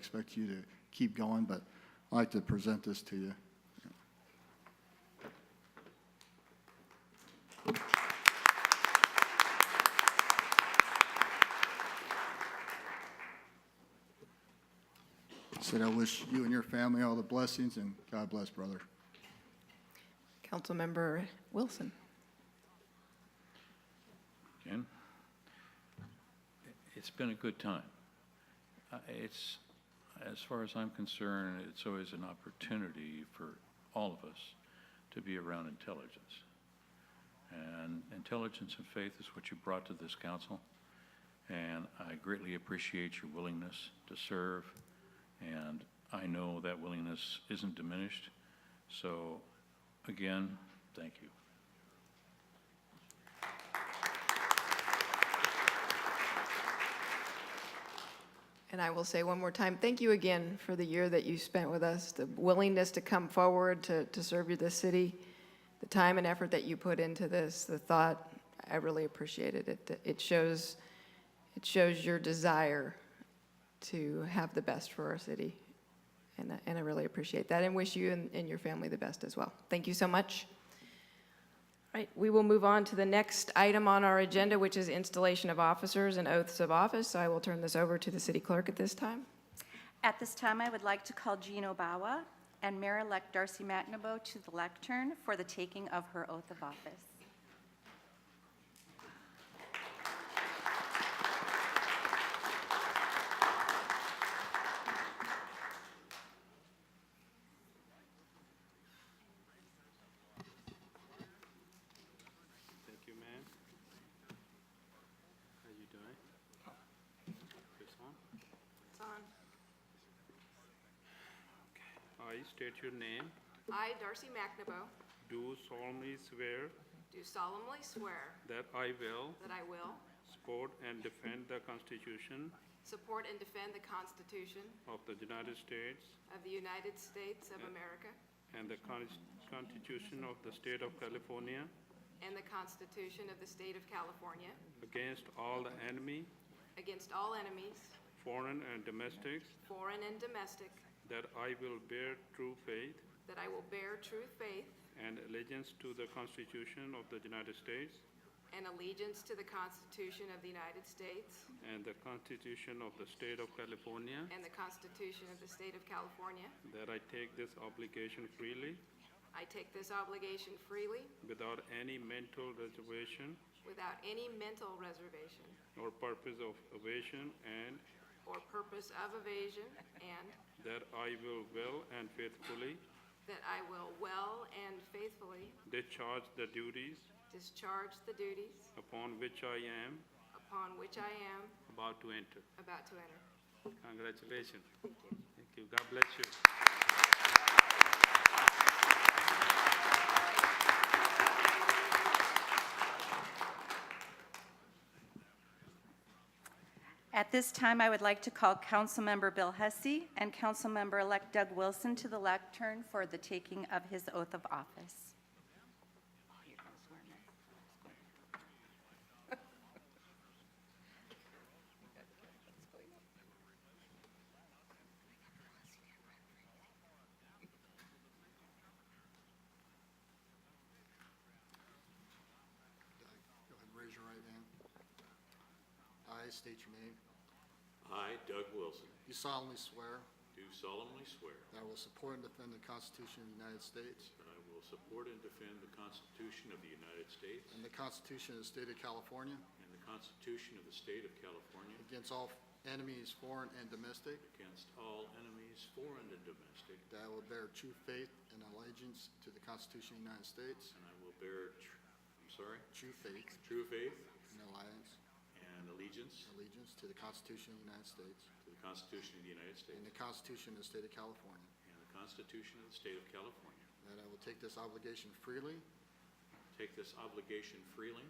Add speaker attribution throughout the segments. Speaker 1: expect you to keep going, but I'd like to present this to you. Said I wish you and your family all the blessings, and God bless, brother.
Speaker 2: Councilmember Wilson.
Speaker 3: Jen, it's been a good time. Uh, It's, as far as I'm concerned, it's always an opportunity for all of us to be around intelligence. And intelligence and faith is what you brought to this council, and I greatly appreciate your willingness to serve, and I know that willingness isn't diminished. So, again, thank you.
Speaker 2: And I will say one more time, thank you again for the year that you spent with us, the willingness to come forward to, to serve you, the city, the time and effort that you put into this, the thought, I really appreciate it. It, it shows, it shows your desire to have the best for our city. And, I- and I really appreciate that and wish you and, and your family the best as well. Thank you so much. All right, we will move on to the next item on our agenda, which is installation of officers and oaths of office. So I will turn this over to the city clerk at this time.
Speaker 4: At this time, I would like to call Jean Obawa and Mayor-elect Darcy McNabo to the lectern for the taking of her oath of office.
Speaker 5: Thank you, ma'am. How you doing? This on? It's on. Okay. I state your name.
Speaker 6: I, Darcy McNabo,
Speaker 5: Do solemnly swear
Speaker 6: do solemnly swear
Speaker 5: that I will
Speaker 6: that I will
Speaker 5: support and defend the Constitution
Speaker 6: support and defend the Constitution
Speaker 5: of the United States
Speaker 6: of the United States of America
Speaker 5: and the Con- Constitution of the State of California
Speaker 6: and the Constitution of the State of California
Speaker 5: against all the enemy,
Speaker 6: against all enemies,
Speaker 5: foreign and domestic,
Speaker 6: foreign and domestic,
Speaker 5: that I will bear true faith
Speaker 6: that I will bear true faith
Speaker 5: and allegiance to the Constitution of the United States
Speaker 6: and allegiance to the Constitution of the United States
Speaker 5: And the Constitution of the State of California.
Speaker 6: and the Constitution of the State of California.
Speaker 5: That I take this obligation freely,
Speaker 6: I take this obligation freely
Speaker 5: without any mental reservation
Speaker 6: without any mental reservation
Speaker 5: or purpose of evasion, and
Speaker 6: or purpose of evasion, and
Speaker 5: that I will well and faithfully
Speaker 6: that I will well and faithfully
Speaker 5: discharge the duties
Speaker 6: Discharge the duties
Speaker 5: upon which I am
Speaker 6: upon which I am
Speaker 5: about to enter.
Speaker 6: about to enter.
Speaker 5: Congratulations. Thank you. God bless you.
Speaker 4: At this time, I would like to call Councilmember Bill Hussey and Councilmember-elect Doug Wilson to the lectern for the taking of his oath of office.
Speaker 1: Go ahead and raise your right hand. I state your name.
Speaker 7: I, Doug Wilson,
Speaker 1: You solemnly swear
Speaker 7: do solemnly swear
Speaker 1: that I will support and defend the Constitution of the United States
Speaker 7: that I will support and defend the Constitution of the United States
Speaker 1: and the Constitution of the State of California
Speaker 7: and the Constitution of the State of California
Speaker 1: Against all enemies, foreign and domestic,
Speaker 7: against all enemies, foreign and domestic,
Speaker 1: that I will bear true faith and allegiance to the Constitution of the United States,
Speaker 7: and I will bear, tr- I'm sorry,
Speaker 1: true faith
Speaker 7: true faith
Speaker 1: and alliance,
Speaker 7: and allegiance
Speaker 1: allegiance to the Constitution of the United States
Speaker 7: to the Constitution of the United
Speaker 1: and
Speaker 7: States
Speaker 1: the Constitution of the State of California,
Speaker 7: and the Constitution of the State of California.
Speaker 1: that I will take this obligation freely,
Speaker 7: Take this obligation freely,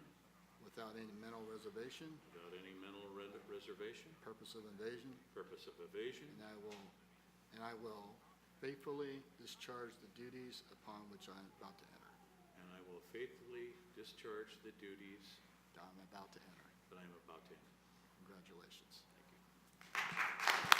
Speaker 1: without any mental reservation,
Speaker 7: without any mental re- reservation,
Speaker 1: purpose of invasion,
Speaker 7: purpose of evasion,
Speaker 1: and I will, and I will faithfully discharge the duties upon which I am about to enter,
Speaker 7: and I will faithfully discharge the duties
Speaker 1: that I'm about to enter.
Speaker 7: that I am about to enter.
Speaker 1: Congratulations.
Speaker 7: Thank you.